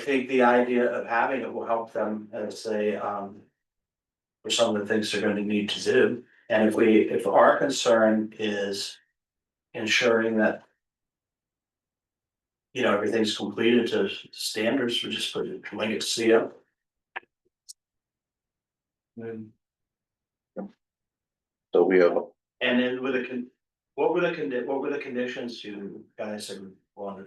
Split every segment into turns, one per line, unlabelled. think the idea of having it will help them as they um. For some of the things they're gonna need to do, and if we, if our concern is ensuring that. You know, everything's completed to standards, we just put it, link it to CO. And
So we have,
then with the con, what were the condi, what were the conditions you guys wanted?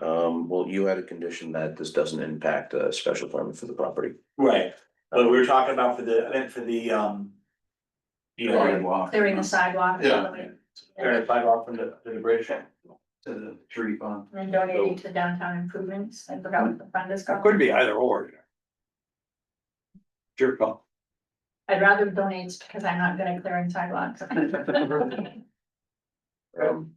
um, well, you had a condition that this doesn't impact a special permit for the property.
Right, but we were talking about for the, I meant for the um. You know.
clearing the sidewalk.
Yeah.
Alright, five off from the, to the bridge. To the tree farm.
And donating to downtown improvements, I forgot what the fund is
It
called.
could be either or. you know. Sure, call.
I'd rather donate because I'm not good at clearing sidewalks.
Um,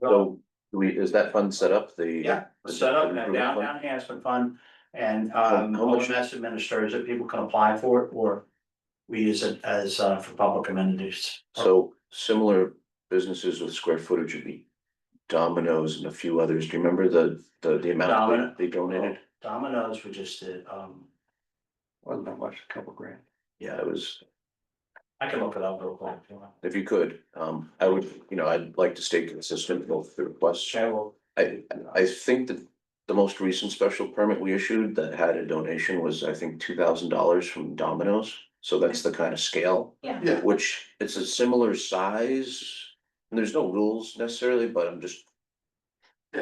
so do we, is that fund set up the?
Yeah,
the-
set up in
the
a
improvement
downtown
fund?
enhancement fund and um,
Oh,
How much-
OMS administers it, people can apply for it or. We use it as uh for public amenities.
So similar businesses with square footage would be Domino's and a few others. Do you remember the, the, the amount
Domino- Oh.
they they donated?
Domino's, we just did, um,
Wasn't that much, a couple grand.
Yeah, it was,
I can look it up real quick. if you want.
if you could, um, I would, you know, I'd like to stay consistent with both the requests.
Okay, well,
I, I think that the most recent special permit we issued that had a donation was, I think, two thousand dollars from Domino's. So that's the kind of scale,
Yeah,
Yeah.
which it's a similar size. And there's no rules necessarily, but I'm just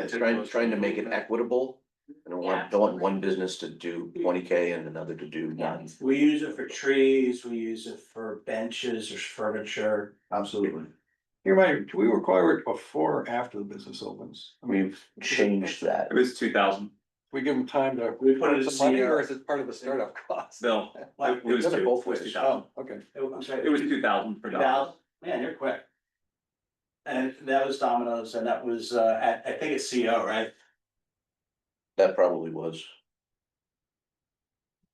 trying, trying to make it equitable. I don't want, don't want one business to do twenty K and another to do
yeah.
none.
we use it for trees, we use it for benches or furniture.
Absolutely.
You might, do we require it before or after the business opens? I mean,
We've changed that.
It was two thousand,
we give them time to.
We put it as
Some money,
CR.
Or is it part of the startup cost?
no, it
We've
was
done it
two, it
both
was
ways.
two thousand,
Oh, okay.
I'm sorry.
it was two thousand for dollars.
Val, man, you're quick. And that was Domino's and that was, uh, at- I think it's CO, right?
That probably was.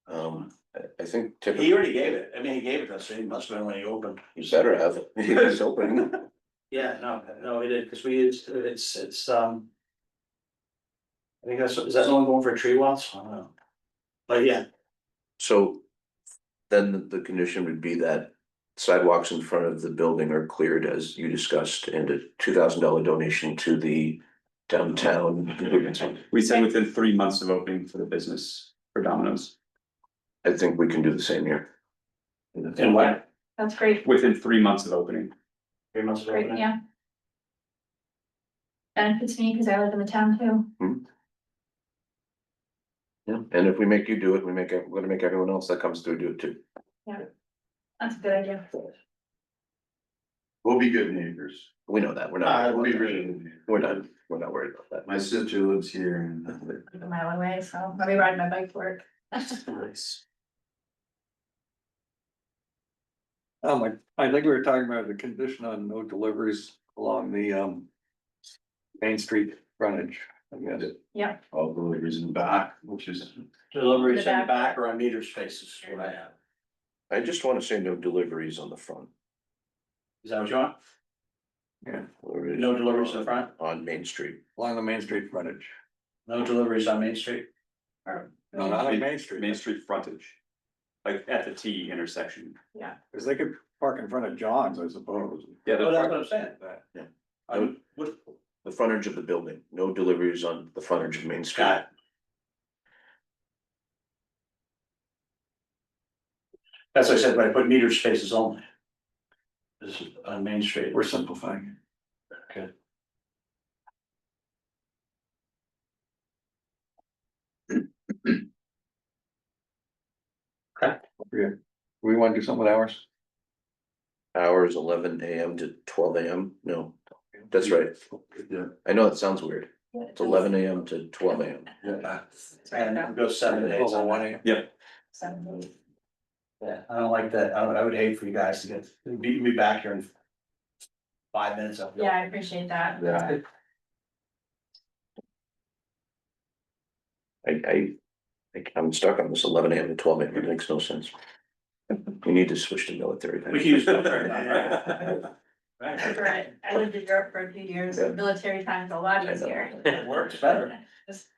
Um, I, I think typically.
He already gave it, I mean, he gave it to us, so he must have been when he opened.
You better have it. It's open.
Yeah, no, no, he did, because we, it's, it's, it's, um. I think that's, is that the one going for tree walls? I don't know. But yeah,
So then the- the condition would be that sidewalks in front of the building are cleared as you discussed and a two thousand dollar donation to the downtown. improvement fund.
We said within three months of opening for the business for Domino's,
I think we can do the same here.
and what,
That's great,
within three months of opening.
three months of
great,
opening?
yeah. Benefits me because I live in the town too.
Yeah, and if we make you do it, we make, it- we're gonna make everyone else that comes through do it too.
That's a good idea.
We'll be good neighbors.
We know that, we're
Uh,
not,
We'll be really good. neighbors.
we're not, we're not worried about that.
My sister lives here and
I'm A mile away, so I'll be riding my bike to work.
Nice.
Um, I, I think we were talking about the condition on no deliveries along the, um. Main Street frontage, I guess.
Yeah,
all the neighbors in the back, which is.
Deliveries in
In
the
the
back or on meter spaces, what I have,
I just wanna say no deliveries on the front.
is that what you want?
Deliveries
No deliveries in the front,
On Main Street.
along the Main Street frontage,
no deliveries on Main Street?
no, not on Main Street.
Main Street frontage, like at the T intersection.
Cause they could park in front of John's, I suppose.
Yeah,
Well, Oh, that's
the-
what I'm saying. I would, would,
The frontage of the building, no deliveries on the frontage of Main Street.
Got that's what I said, but I put meter spaces only. This is on Main Street.
We're simplifying.
Okay.
Yeah. We wanna do something with ours?
Hours eleven AM to twelve AM, no, that's right, I know it sounds weird, it's eleven AM to twelve AM.
Yeah.
It's right
And
now,
it goes seven days.
Twelve oh
on
one
that.
AM.
so.
Yeah, I don't like that, I, I would hate for you guys to get, beat me back here in five minutes. I feel.
Yeah, I appreciate that.
Yeah.
I, I, I- I'm stuck on this eleven AM to twelve AM, it makes no sense. We need to switch to military. time.
We can use military time,
That's
Right,
right. I lived in Europe for a few years,
Yeah.
military time's a lot
I know.
easier.
It works better.
Just